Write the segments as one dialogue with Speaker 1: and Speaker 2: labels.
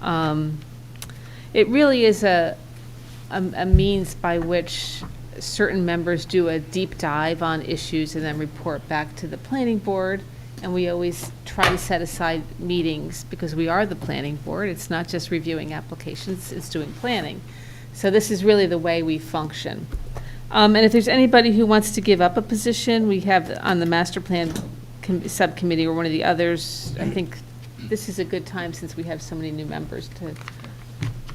Speaker 1: Um, It really is a, a a means by which certain members do a deep dive on issues and then report back to the planning board. And we always try to set aside meetings because we are the planning board. It's not just reviewing applications, it's doing planning. So this is really the way we function. Um, And if there's anybody who wants to give up a position, we have on the master plan com- subcommittee or one of the others, I think this is a good time since we have so many new members to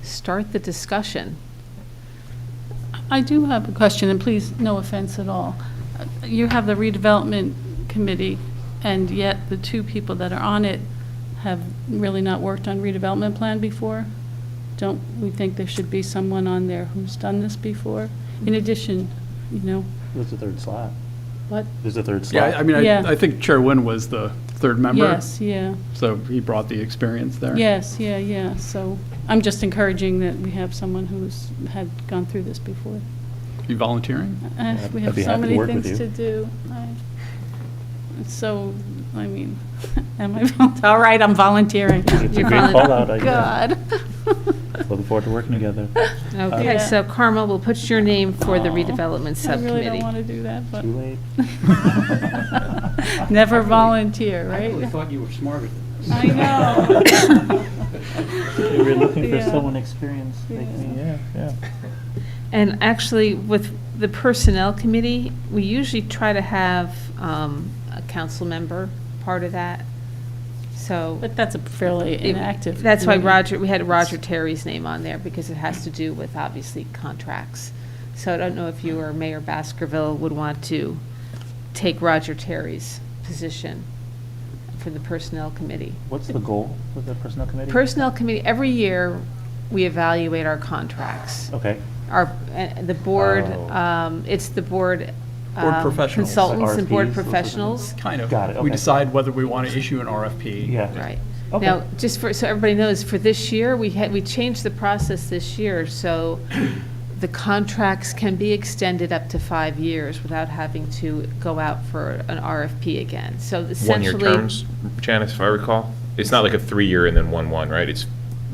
Speaker 1: start the discussion.
Speaker 2: I do have a question, and please, no offense at all. You have the redevelopment committee, and yet the two people that are on it have really not worked on redevelopment plan before? Don't we think there should be someone on there who's done this before? In addition, you know,
Speaker 3: There's a third slot.
Speaker 2: what,
Speaker 3: There's a third
Speaker 4: Yeah,
Speaker 3: slot.
Speaker 4: I mean,
Speaker 2: Yeah.
Speaker 4: I, I think Chair Nguyen was the third member.
Speaker 2: yes, yeah,
Speaker 4: So he brought the experience there.
Speaker 2: yes, yeah, yeah, so I'm just encouraging that we have someone who's had gone through this before.
Speaker 4: You volunteering?
Speaker 2: Uh,
Speaker 3: I'd-
Speaker 2: We
Speaker 3: I'd
Speaker 2: have
Speaker 3: be
Speaker 2: so
Speaker 3: happy to
Speaker 2: many
Speaker 3: work with
Speaker 2: things to
Speaker 3: you.
Speaker 2: do. I- it's So, I mean, am I, vol- all right, I'm volunteering. Oh,
Speaker 3: It's a
Speaker 1: You're
Speaker 3: great
Speaker 1: fine.
Speaker 3: call-out, I guess.
Speaker 2: God.
Speaker 3: Looking forward to working together.
Speaker 1: Okay,
Speaker 2: Yeah.
Speaker 1: so Carmel, we'll put your name for the
Speaker 2: Uh, Aw.
Speaker 1: redevelopment
Speaker 2: I really don't
Speaker 1: subcommittee.
Speaker 2: want to do that, but.
Speaker 3: Too late.
Speaker 2: Never volunteer,
Speaker 5: I really
Speaker 2: right?
Speaker 5: thought you were smarter than this.
Speaker 2: I know.
Speaker 3: We were looking for
Speaker 2: Yeah.
Speaker 3: someone experienced. like
Speaker 2: Yeah.
Speaker 3: me. Yeah, yeah.
Speaker 1: And actually, with the Personnel Committee, we usually try to have um, a council member part of that, so.
Speaker 2: But that's a fairly
Speaker 1: it-
Speaker 2: inactive. Mm-hmm.
Speaker 1: That's why
Speaker 2: committee.
Speaker 1: Roger, we had Roger Terry's name on there, because it has to do with, obviously, contracts. So I don't know if you or Mayor Baskerville would want to take Roger Terry's position for the Personnel Committee.
Speaker 3: What's the goal with the personnel committee?
Speaker 1: Personnel committee, every year, we evaluate our contracts.
Speaker 3: Okay,
Speaker 1: Our, uh, the board,
Speaker 3: Oh.
Speaker 1: um, it's the board.
Speaker 4: Board
Speaker 1: um,
Speaker 4: professionals.
Speaker 1: Consultants and board
Speaker 3: RFPs.
Speaker 1: professionals,
Speaker 4: Kind of.
Speaker 3: Got it,
Speaker 4: We
Speaker 3: okay.
Speaker 4: decide whether we want to issue an RFP.
Speaker 3: yeah.
Speaker 1: right.
Speaker 3: Okay.
Speaker 1: Now, just for, so everybody knows, for this year, we had, we changed the process this year, so the contracts can be extended up to five years without having to go out for an RFP again. So essentially.
Speaker 6: One-year terms, Janice, if I recall? It's not like a three-year and then one-one, right? It's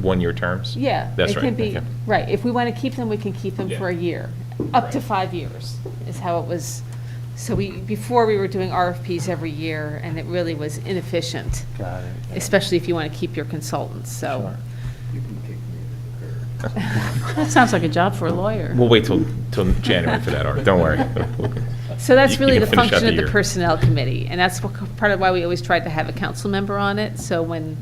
Speaker 6: one-year terms?
Speaker 1: Yeah.
Speaker 6: That's
Speaker 1: it
Speaker 6: right,
Speaker 1: can be-
Speaker 6: okay.
Speaker 1: Right, if we want to keep them, we can keep them for a year, up to five years, is how it was. So we, before we were doing RFPs every year, and it really was inefficient,
Speaker 3: Got it.
Speaker 1: especially if you want to keep your consultants, so.
Speaker 3: Sure.
Speaker 5: You can kick me to the curb.
Speaker 2: That sounds like a job for a lawyer.
Speaker 6: We'll wait till, till January for that, Art, don't worry.
Speaker 1: So that's
Speaker 6: You-
Speaker 1: really
Speaker 6: you
Speaker 1: the
Speaker 6: can finish out
Speaker 1: function of the
Speaker 6: year.
Speaker 1: Personnel Committee, and that's what- part of why we always tried to have a council member on it. So when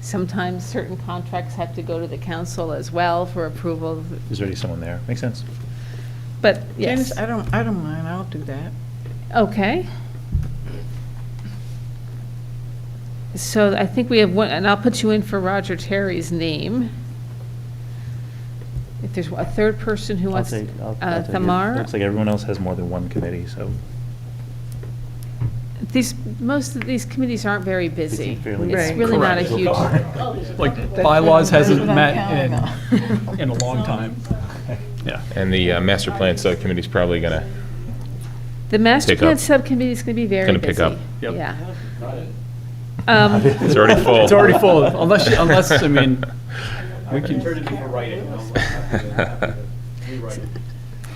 Speaker 1: sometimes certain contracts have to go to the council as well for approval,
Speaker 3: There's already someone there. Makes sense.
Speaker 1: but yes.
Speaker 7: Janice, I don't, I don't mind, I'll do that.
Speaker 1: Okay. So I think we have one, and I'll put you in for Roger Terry's name. If there's a third person who
Speaker 3: I'll
Speaker 1: wants,
Speaker 3: take, I'll- I'll
Speaker 1: uh,
Speaker 3: take it.
Speaker 1: Thamar?
Speaker 3: Looks like everyone else has more than one committee, so.
Speaker 1: These, most of these committees aren't very busy.
Speaker 3: fairly
Speaker 1: It's
Speaker 7: busy.
Speaker 1: really not a
Speaker 6: Correct.
Speaker 1: huge,
Speaker 4: Like bylaws hasn't
Speaker 7: That's what I'm
Speaker 4: met
Speaker 7: counting on.
Speaker 4: in, in a long time. Yeah.
Speaker 6: And the uh, master plan subcommittee's probably gonna,
Speaker 1: the master
Speaker 6: Pick
Speaker 1: plan
Speaker 6: up.
Speaker 1: subcommittee is going to be very busy.
Speaker 6: Gonna pick up.
Speaker 4: Yep.
Speaker 1: Yeah. Um,
Speaker 6: it's already full.
Speaker 4: It's already full, unless, unless, I mean, we
Speaker 5: Turn
Speaker 4: can,
Speaker 5: it into writing, and I'll have to rewrite it.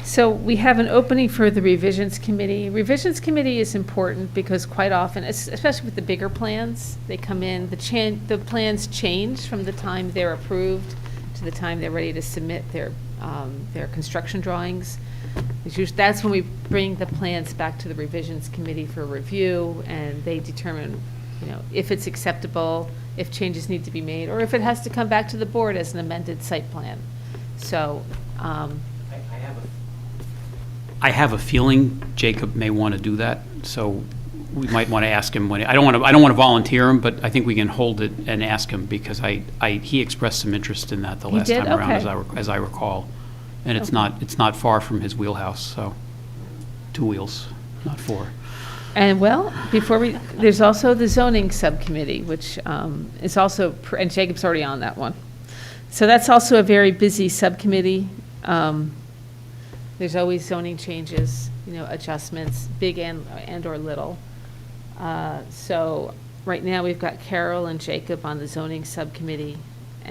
Speaker 1: So we have an opening for the revisions committee. Revisions committee is important because quite often, es- especially with the bigger plans, they come in, the chan, the plans change from the time they're approved to the time they're ready to submit their, um, their construction drawings. It's usu- That's when we bring the plans back to the revisions committee for review and they determine, you know, if it's acceptable, if changes need to be made, or if it has to come back to the board as an amended site plan. So, um,
Speaker 8: I have a feeling Jacob may want to do that, so we might want to ask him when, I don't want to, I don't want to volunteer him, but I think we can hold it and ask him, because I, I, he expressed some interest in that the
Speaker 1: He
Speaker 8: last
Speaker 1: did?
Speaker 8: time around, as
Speaker 1: Okay.
Speaker 8: I, rec- as I recall. And it's
Speaker 1: Okay.
Speaker 8: not, it's not far from his wheelhouse, so, two wheels, not four.
Speaker 1: And well, before we, there's also the zoning subcommittee, which um, is also, pr- and Jacob's already on that one. So that's also a very busy subcommittee. Um, There's always zoning changes, you know, adjustments, big and, and/or little. Uh, So right now, we've got Carol and Jacob on the zoning subcommittee.